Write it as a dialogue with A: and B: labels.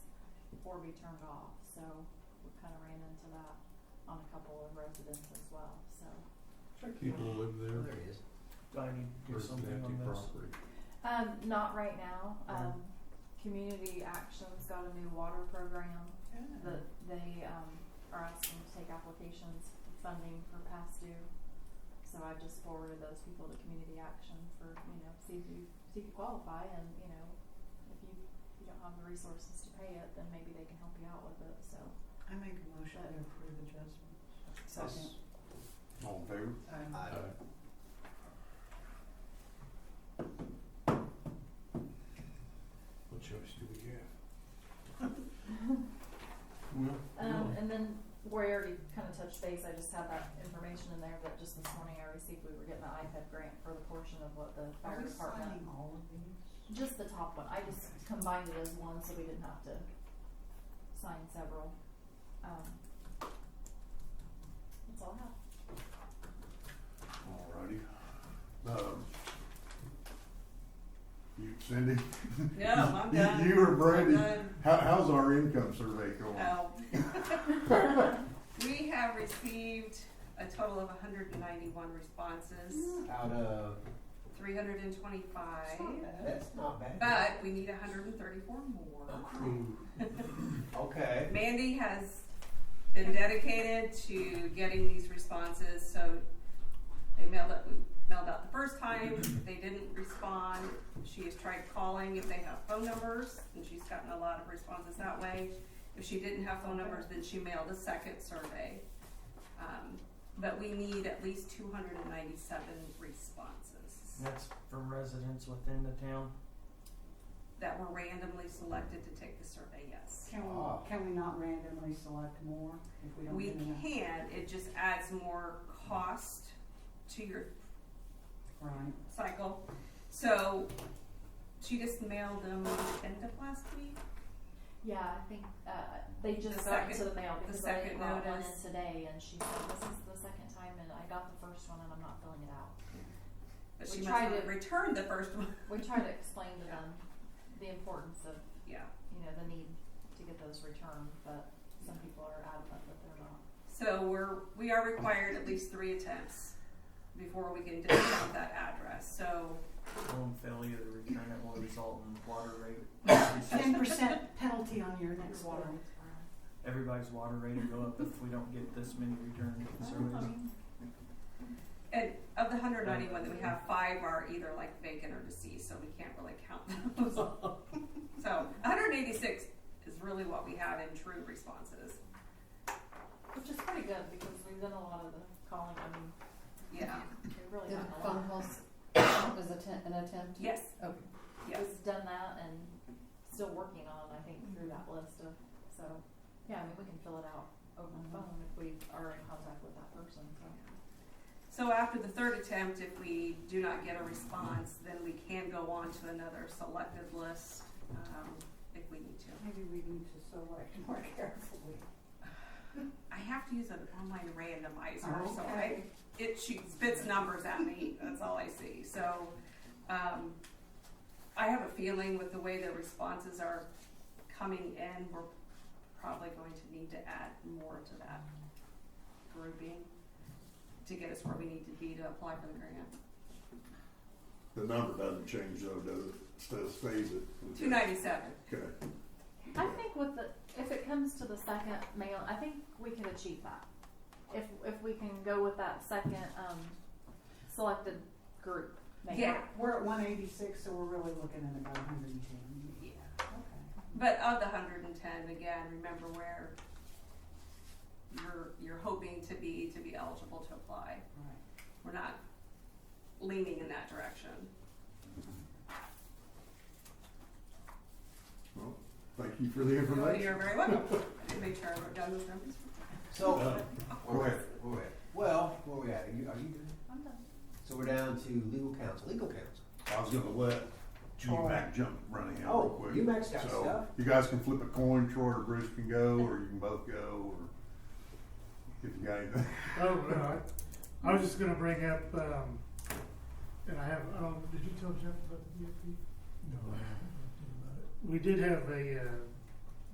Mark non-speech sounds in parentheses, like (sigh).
A: before be turned off, so we kind of ran into that on a couple of residents as well, so.
B: People live there,
C: he is.
D: I need
B: or
D: to do
B: it's an
D: something
B: empty
D: on this.
B: property.
A: Um, not right now,
D: Mm.
A: um, Community Action's got a new water program that they, um, are asking to take applications for funding for past due. So I just forwarded those people to Community Action for, you know, see if you, see if you qualify and, you know, if you, if you don't have the resources to pay it, then maybe they can help you out with it, so.
E: I make a motion to approve adjustments.
A: Second.
B: All in favor?
E: Um,
C: Aye.
B: What choice do we have? (laughs) Well,
A: Um,
B: no.
A: and then where I already kind of touched base, I just had that information in there that just this morning I received, we were getting the iPad grant for the portion of what the
E: Are
A: fire
E: we
A: department.
E: signing all of these?
A: Just the top one, I just combined it as one, so we didn't have to sign several, um. That's all I have.
B: Alrighty. Um, you, Cindy?
E: No, I'm done.
B: You or Brandy,
E: I'm done.
B: how, how's our income survey going?
E: Oh. We have received a total of hundred and ninety-one responses,
C: Out of.
E: three hundred and twenty-five,
C: That's not bad.
E: but we need hundred and thirty-four more.
C: Okay.
E: Mandy has been dedicated to getting these responses, so they mailed it, we mailed out the first time, they didn't respond. She has tried calling if they have phone numbers, and she's gotten a lot of responses that way. If she didn't have phone numbers, then she mailed a second survey. Um, but we need at least two hundred and ninety-seven responses
D: That's from residents within the town.
E: that were randomly selected to take the survey, yes.
F: Can we,
B: Uh,
C: Ah.
F: can we not randomly select more if we don't
E: We
F: get enough?
E: can, it just adds more cost to your
F: Right.
E: cycle. So she just mailed them end of last week.
A: Yeah, I think, uh, they just
E: The
A: got
E: second-
A: to the mail
E: the
A: because I
E: second
A: brought one in
E: notice.
A: today, and she said, this is the second time, and I got the first one, and I'm not filling it out.
E: But
A: We
E: she must
A: tried
E: have
A: it.
E: returned the first one. (laughs)
A: We tried to explain to them the importance of
E: Yeah.
A: you know, the need to get those returned, but some people are adamant that they're not.
E: So we're we are required at least three attempts before we can discount that address. So
D: Home failure to return it will result in water rate.
F: Ten percent penalty on your next water.
D: Everybody's water rate will go up if we don't get this many return surveys.
E: and of the 191 that we have, five are either like vacant or deceased, so we can't really count (laughs)
F: (laughs)
E: those. so 186 is really what we have in true responses.
A: Which is pretty good because we've done a lot of the calling, I mean,
E: Yeah.
A: we've really
G: The
A: done a
G: phone
A: lot.
G: calls count as atten- an attempt?
E: Yes.
G: Okay.
E: Yes.
A: We've done that and still working on, I think, through that list of, so, yeah, I mean, we can fill it out over the
F: Mhm.
A: phone if we are in contact with that person, so.
E: So after the third attempt, if we do not get a response, then we can go on to another selected list, um, if we need to.
F: Maybe we need to select more (laughs) carefully.
E: I have to use an online randomizer, so I,
F: Okay.
E: it she spits numbers at me, that's all I see, so, um, I have a feeling with the way the responses are coming in, we're probably going to need to add more to that grouping to get us where we need to be to apply for the grant.
B: The number doesn't change though, does it? Still stays at?
E: Two ninety-seven.
B: Okay.
A: I think with the, if it comes to the second mail, I think we can achieve that. If, if we can go with that second, um, selected group mail.
E: Yeah.
F: We're at one eighty-six, so we're really looking at about hundred and ten.
E: Yeah.
F: Okay.
E: But of the hundred and ten, again, remember where you're, you're hoping to be, to be eligible to apply.
F: Right.
E: We're not leaning in that direction.
B: Well, thank you for the
E: Oh, You're
B: information.
E: very welcome. I made sure I wrote down those numbers.
C: So,
B: Uh,
C: where we at? Where we at? Well, where we at? Are you, are you good?
A: I'm done.
C: So we're down to legal counsel. Legal counsel.
B: I was gonna let
C: Troy.
B: G-Mac jump running out real
C: Oh,
B: quick.
C: you maxed out
B: So
C: stuff.
B: you guys can flip a coin, Troy or Bruce can go, or you can both go, or if you got anything.
H: Oh, no, I, I was just gonna bring up, um, and I have, oh, um, did you tell Jeff about the DFP? No, I haven't talked to him about it. We did have a, uh,